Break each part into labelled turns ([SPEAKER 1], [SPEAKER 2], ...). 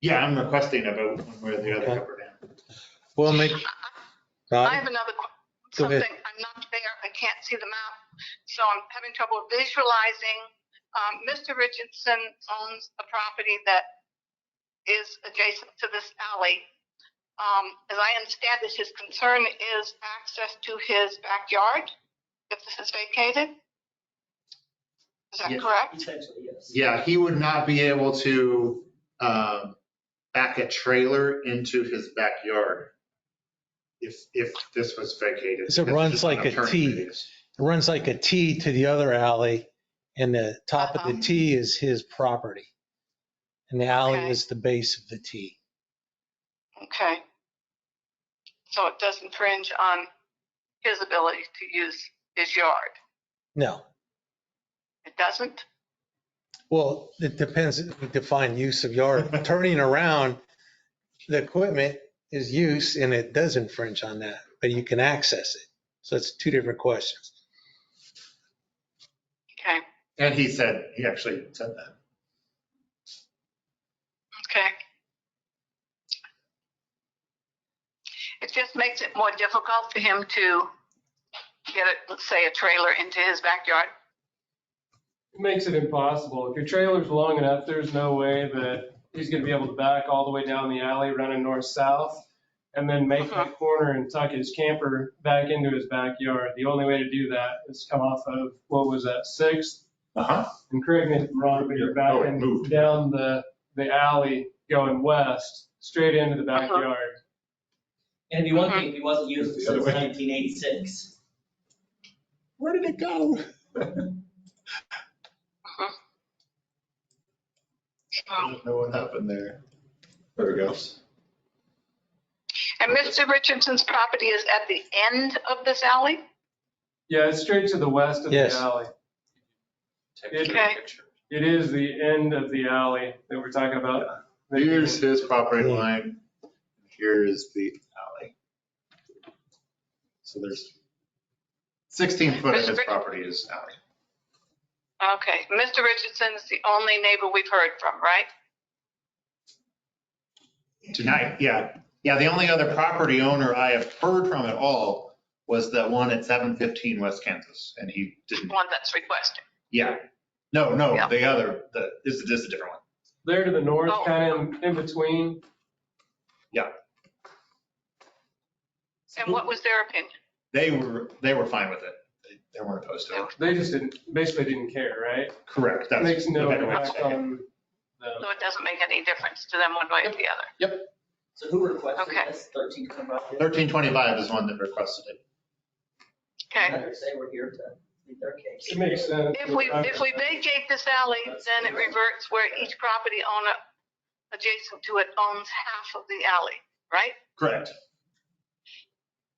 [SPEAKER 1] Yeah, I'm requesting a vote one way or the other,
[SPEAKER 2] Okay.
[SPEAKER 1] up or down.
[SPEAKER 2] We'll make,
[SPEAKER 3] I
[SPEAKER 2] uh,
[SPEAKER 3] have another, que-
[SPEAKER 2] Go ahead.
[SPEAKER 3] something, I'm not there, I can't see the map, so I'm having trouble visualizing. Um, Mr. Richardson owns a property that is adjacent to this alley. Um, as I understand it, his concern is access to his backyard if this is vacated? Is that
[SPEAKER 1] Yes.
[SPEAKER 3] correct?
[SPEAKER 4] Essentially, yes.
[SPEAKER 1] Yeah, he would not be able to um, back a trailer into his backyard if, if this was vacated.
[SPEAKER 2] So it
[SPEAKER 1] That's
[SPEAKER 2] runs
[SPEAKER 1] just an
[SPEAKER 2] like a
[SPEAKER 1] attorney
[SPEAKER 2] T.
[SPEAKER 1] basis.
[SPEAKER 2] it runs like a T to the other alley, and the top of the
[SPEAKER 3] Uh-huh.
[SPEAKER 2] T is his property. And the alley
[SPEAKER 3] Okay.
[SPEAKER 2] is the base of the T.
[SPEAKER 3] Okay. So it does infringe on his ability to use his yard?
[SPEAKER 2] No,
[SPEAKER 3] It doesn't?
[SPEAKER 2] well, it depends, we define use of yard. Turning around the equipment is use, and it does infringe on that, but you can access it. So it's two different questions.
[SPEAKER 3] Okay.
[SPEAKER 1] And he said, he actually said that.
[SPEAKER 3] Okay. It just makes it more difficult for him to get, a- let's say, a trailer into his backyard.
[SPEAKER 5] It Makes it impossible. If your trailer's long enough, there's no way that he's gonna be able to back all the way down the alley running north-south and then make
[SPEAKER 3] Uh-huh.
[SPEAKER 5] that corner and tuck his camper back into his backyard. The only way to do that is come off of, what was that, Sixth?
[SPEAKER 1] Uh-huh.
[SPEAKER 5] And correct me if I'm wrong, but you're
[SPEAKER 1] Yeah, oh, it
[SPEAKER 5] backing
[SPEAKER 1] moved.
[SPEAKER 5] down the, the alley going west, straight into the
[SPEAKER 3] Uh-huh.
[SPEAKER 5] backyard.
[SPEAKER 4] And it'd be one
[SPEAKER 3] Mm-hmm.
[SPEAKER 4] thing if he wasn't used
[SPEAKER 1] The
[SPEAKER 4] since
[SPEAKER 1] other way.
[SPEAKER 4] 1986.
[SPEAKER 2] Where did it go?
[SPEAKER 1] I don't know what happened there. There it goes.
[SPEAKER 3] And Mr. Richardson's property is at the end of this alley?
[SPEAKER 5] Yeah, it's straight to the west of the
[SPEAKER 2] Yes.
[SPEAKER 5] alley. It-
[SPEAKER 3] Okay.
[SPEAKER 5] It is the end of the alley that we're talking about.
[SPEAKER 1] Here's his property line. Here's the alley. So there's 16 foot of his property is alley.
[SPEAKER 3] Okay, Mr. Richardson is the only neighbor we've heard from, right?
[SPEAKER 1] Tonight, yeah. Yeah, the only other property owner I have heard from at all was that one at 715 West Kansas, and he
[SPEAKER 3] The
[SPEAKER 1] didn't,
[SPEAKER 3] one that's requesting.
[SPEAKER 1] yeah. No, no,
[SPEAKER 3] Yeah.
[SPEAKER 1] the other, the, this is, this is a different one.
[SPEAKER 5] There to the north,
[SPEAKER 3] Oh.
[SPEAKER 5] kind of in between.
[SPEAKER 3] And what was their opinion?
[SPEAKER 1] They were, they were fine with it. They- They weren't opposed to it.
[SPEAKER 5] They just didn't, basically didn't care, right?
[SPEAKER 1] Correct, that's.
[SPEAKER 5] Makes no
[SPEAKER 1] the better way to
[SPEAKER 5] impact
[SPEAKER 1] say it.
[SPEAKER 5] on them.
[SPEAKER 3] So it doesn't make any difference to them one way or the other.
[SPEAKER 4] So who requested
[SPEAKER 3] Okay.
[SPEAKER 4] this? 13 to come up here?
[SPEAKER 1] 1325 is one that requested it.
[SPEAKER 3] Okay.
[SPEAKER 4] I would say we're here to plead their case.
[SPEAKER 5] It makes sense.
[SPEAKER 3] If we, if we vacate this alley, then it reverts where each property owner adjacent to it owns half of the alley, right?
[SPEAKER 1] Correct.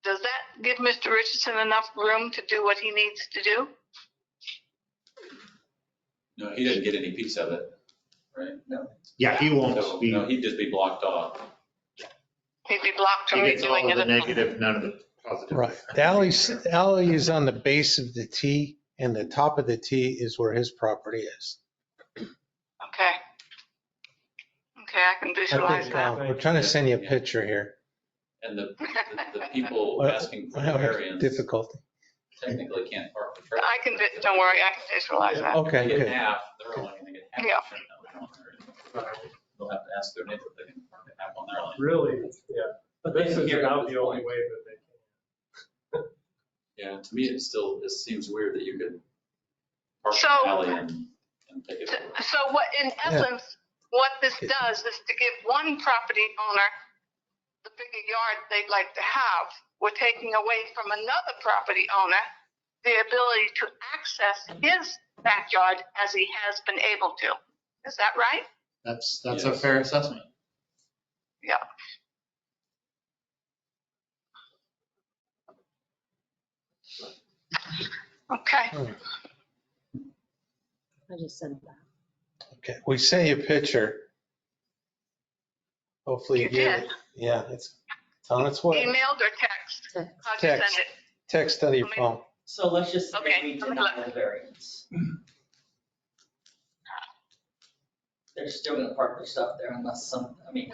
[SPEAKER 3] Does that give Mr. Richardson enough room to do what he needs to do?
[SPEAKER 6] No, he didn't get any piece of it, right?
[SPEAKER 1] Yeah, he
[SPEAKER 6] So,
[SPEAKER 1] won't be,
[SPEAKER 6] no, he'd just be blocked off.
[SPEAKER 3] He'd be blocked
[SPEAKER 1] he
[SPEAKER 3] from
[SPEAKER 1] gets all
[SPEAKER 3] doing
[SPEAKER 1] of
[SPEAKER 3] it.
[SPEAKER 1] the
[SPEAKER 3] at all.
[SPEAKER 1] negative, none of the positive.
[SPEAKER 2] Right. The alley's, the alley is on the base of the T, and the top of the T is where his property is.
[SPEAKER 3] Okay. Okay, I can visualize that.
[SPEAKER 2] Now, uh, We're trying to send you a picture here.
[SPEAKER 6] And the, the- the people
[SPEAKER 2] Well,
[SPEAKER 6] asking for
[SPEAKER 2] I have
[SPEAKER 6] variance
[SPEAKER 2] Difficulty.
[SPEAKER 6] technically can't park the trailer.
[SPEAKER 3] I can, vi- don't worry, I can visualize that.
[SPEAKER 2] Okay,
[SPEAKER 6] They get
[SPEAKER 2] good.
[SPEAKER 6] half, they're only gonna get half.
[SPEAKER 3] Yeah.
[SPEAKER 6] They'll have to ask their neighbor if they can park it half on their line.
[SPEAKER 5] Really, yeah.
[SPEAKER 4] But they
[SPEAKER 5] This
[SPEAKER 4] didn't
[SPEAKER 5] is
[SPEAKER 4] hear
[SPEAKER 5] about
[SPEAKER 4] this
[SPEAKER 5] the only
[SPEAKER 4] point.
[SPEAKER 5] way that they can.
[SPEAKER 6] Yeah, to me, it still, it seems weird that you could park in
[SPEAKER 3] So-
[SPEAKER 6] the alley and, and take it. over.
[SPEAKER 3] So what, in essence, what this does is to give one property owner the bigger yard they'd like to have. We're taking away from another property owner the ability to access his backyard as he has been able to. Is that right?
[SPEAKER 1] That's, that's a
[SPEAKER 6] Yes.
[SPEAKER 1] fair assessment.
[SPEAKER 3] Okay.
[SPEAKER 7] I just sent that.
[SPEAKER 2] Okay, we sent you a picture. Hopefully you
[SPEAKER 3] You
[SPEAKER 2] get
[SPEAKER 3] did.
[SPEAKER 2] it. Yeah, it's, it's on its way.
[SPEAKER 3] Emailed or text?
[SPEAKER 7] Text.
[SPEAKER 3] How'd you send
[SPEAKER 2] Text.
[SPEAKER 3] it?
[SPEAKER 2] Text out of your phone.
[SPEAKER 4] So let's just say
[SPEAKER 3] Okay, Mm-hmm.
[SPEAKER 4] we
[SPEAKER 3] let me look.
[SPEAKER 4] deny the variance. they're still gonna park their stuff there unless some, I mean,